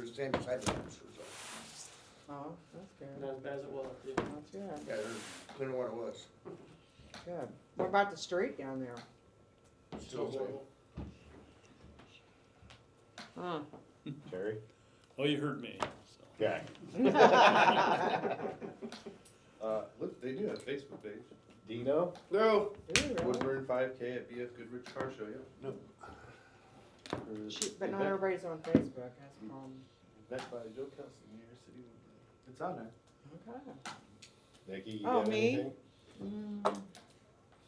the same as I'd done, so, Oh, that's good. Not as bad as it was, yeah. Not good. yeah, there's, clean what it was. Good. What about the street down there? Still the same. Huh. Terry? Well, Oh, you heard me, so. Yeah. Ooh, Uh, look, they do have a Facebook page. Dino? No. really? Woodburn 5K at BF Goodrich Car Show. Yeah. Or is Shoot, But not that- everybody's on Facebook, that's the problem. That's by Joe Kelson, New York City. Woodburn. It's on there. Okay. Nikki, you Oh, got me? anything? Mm,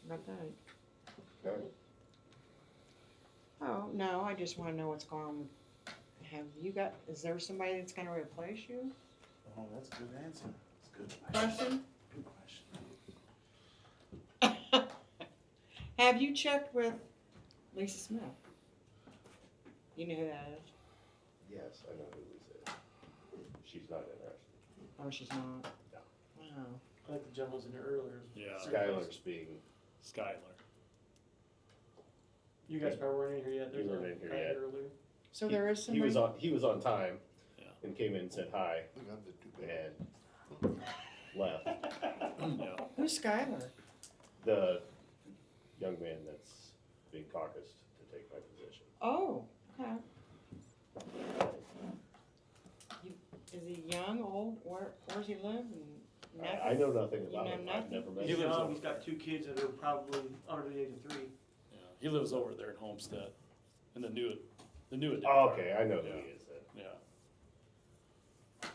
Not that. Okay. Oh, no, I just wanna know what's going on. Have you got, is there somebody that's gonna replace you? Oh, that's a good answer. That's a good Question? Good question. Have you checked with Lisa Smith? You know who that is? Yes, I know who Lisa is. She's not interested. Oh, she's not. No. Wow. I think the gentleman's in here earlier. Yeah. Skylar's being, Skylar. You guys probably weren't in here yet. There's a You weren't in here guy yet. earlier. So He- there is he somebody. was on, he was on time Yeah. and came in and said hi We got the two big- and left. Yeah. Who's Skylar? The young man that's being caucused to take my position. Oh, okay. You- Is he young, old? Where, where does he live? And I, I know nothing You about know him. I've nothing? never met He He's him. Oh, lives young, over he's got two kids that are probably under the age of three. Yeah. He lives over there in Homestead, in the new, the new. Oh, okay, I know who Yeah. he is then. Yeah.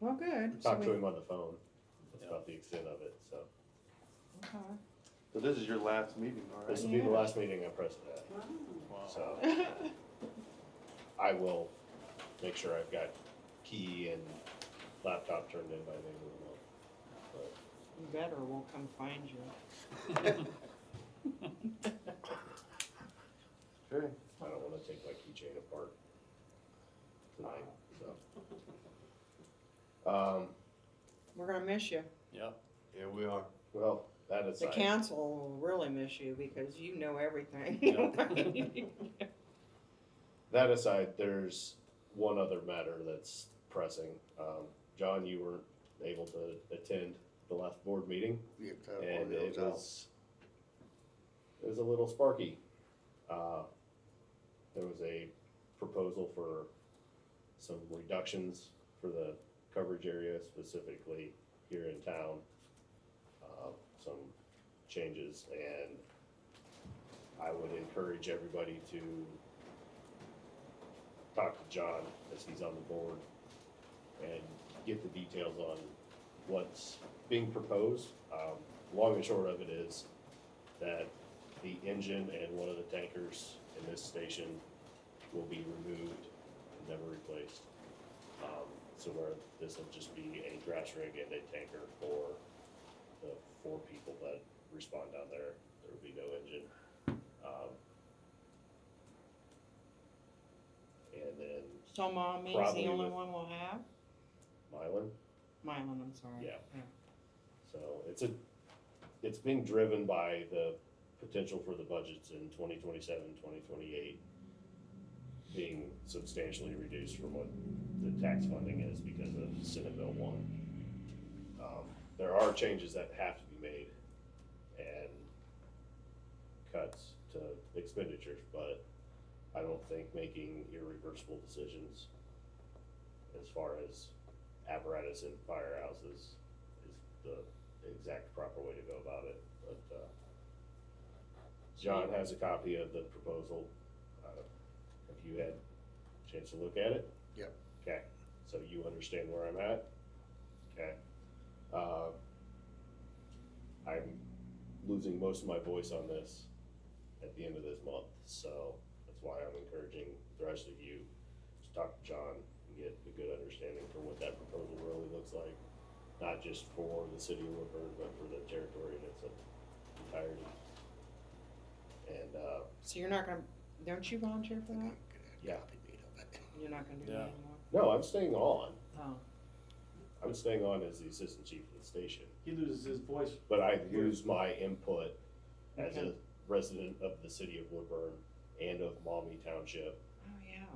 Well, good. So Talked we- to him on the phone. That's Yeah. about the extent of it, so. okay. So this is your last meeting, all This right? will be the Yeah. last meeting I'm president at, Wow. so I will make sure I've got key and laptop turned in by the end of the month. You better won't come find you. Okay. I don't wanna take my keychain apart tonight, so. Um, We're gonna miss you. Yeah. Yeah, we are. well, that The aside, council will really miss you because you know everything. Yeah. that aside, there's one other matter that's pressing. Um, John, you weren't able to attend the last board meeting. we have to have all and it those out. was it was a little sparky. Uh, there was a proposal for some reductions for the coverage area specifically here in town. Uh, some changes and I would encourage everybody to talk to John as he's on the board and get the details on what's being proposed. Um, long and short of it is that the engine and one of the tankers in this station will be removed and never replaced. Um, so where this will just be a grass rig and a tanker for the four people that respond down there. There will be no engine. Um, and then So mommy's Probably the only with- one we'll have? Mylan. Mylan, I'm sorry. Yeah. So it's a, it's being driven by the potential for the budgets in 2027, 2028 being substantially reduced from what the tax funding is because of Senate Bill 1. Um, There are changes that have to be made and cuts to expenditures, but I don't think making irreversible decisions as far as apparatus and firehouses is the exact proper way to go about it, but, uh, John has a copy of the proposal. Uh, Have you had a chance to look at it? Yep. Okay, so you understand where I'm at? Okay. Uh, I'm losing most of my voice on this at the end of this month, so that's why I'm encouraging the rest of you to talk to John and get a good understanding for what that proposal really looks like, not just for the city of Woodburn, but for the territory in its entirety. And, uh, So you're not gonna, don't you volunteer for I'm that? not gonna have Yeah. copy made of it. You're not gonna do Yeah. that anymore? no, I'm staying on. Oh. I'm staying on as the assistant chief of the station, He loses his voice. but I lose my input as a Okay. resident of the city of Woodburn and of Maumee Township Oh, yeah.